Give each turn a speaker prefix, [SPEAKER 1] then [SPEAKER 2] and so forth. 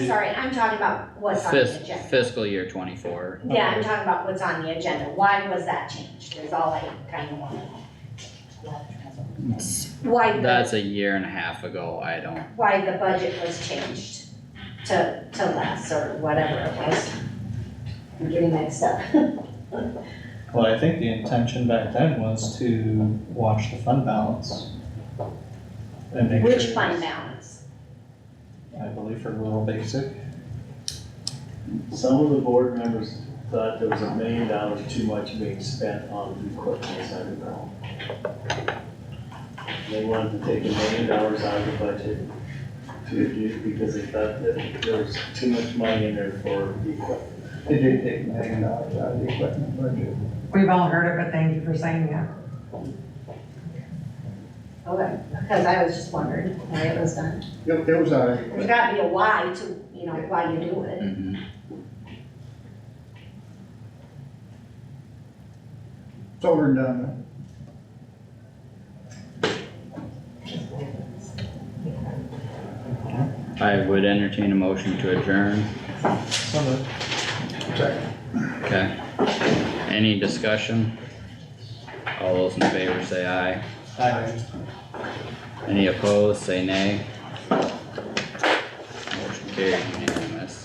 [SPEAKER 1] sorry, I'm talking about what's on the
[SPEAKER 2] Fis-
[SPEAKER 1] agenda.
[SPEAKER 2] Fiscal year twenty-four.
[SPEAKER 1] Yeah, I'm talking about what's on the agenda, why was that changed, is all I kinda wanna. Why the,
[SPEAKER 2] That's a year and a half ago, I don't,
[SPEAKER 1] why the budget was changed to, to less, or whatever it was. I'm getting mixed up.
[SPEAKER 3] Well, I think the intention back then was to watch the fund balance. And make sure.
[SPEAKER 1] Which fund balance?
[SPEAKER 3] I believe for rural basic,
[SPEAKER 4] Some of the board members thought there was a million dollars too much being spent on the equipment inside the ground. They wanted to take a million dollars out of the budget to reduce, because they thought that there was too much money in there for the equipment.
[SPEAKER 5] They did take a million dollars out of the equipment budget.
[SPEAKER 6] We've all heard it, but thank you for saying that.
[SPEAKER 1] Okay, because Oh, I was just wondering why it was done.
[SPEAKER 5] It, it was a,
[SPEAKER 1] There's gotta be a why to, you know, why you do it.
[SPEAKER 2] mhm.
[SPEAKER 5] it's over and done. uh, with.
[SPEAKER 2] I would entertain a motion to adjourn,
[SPEAKER 3] some of it,
[SPEAKER 2] okay? Any discussion? All those in favor say aye,
[SPEAKER 3] I,
[SPEAKER 2] any opposed, say nay. Motion carried.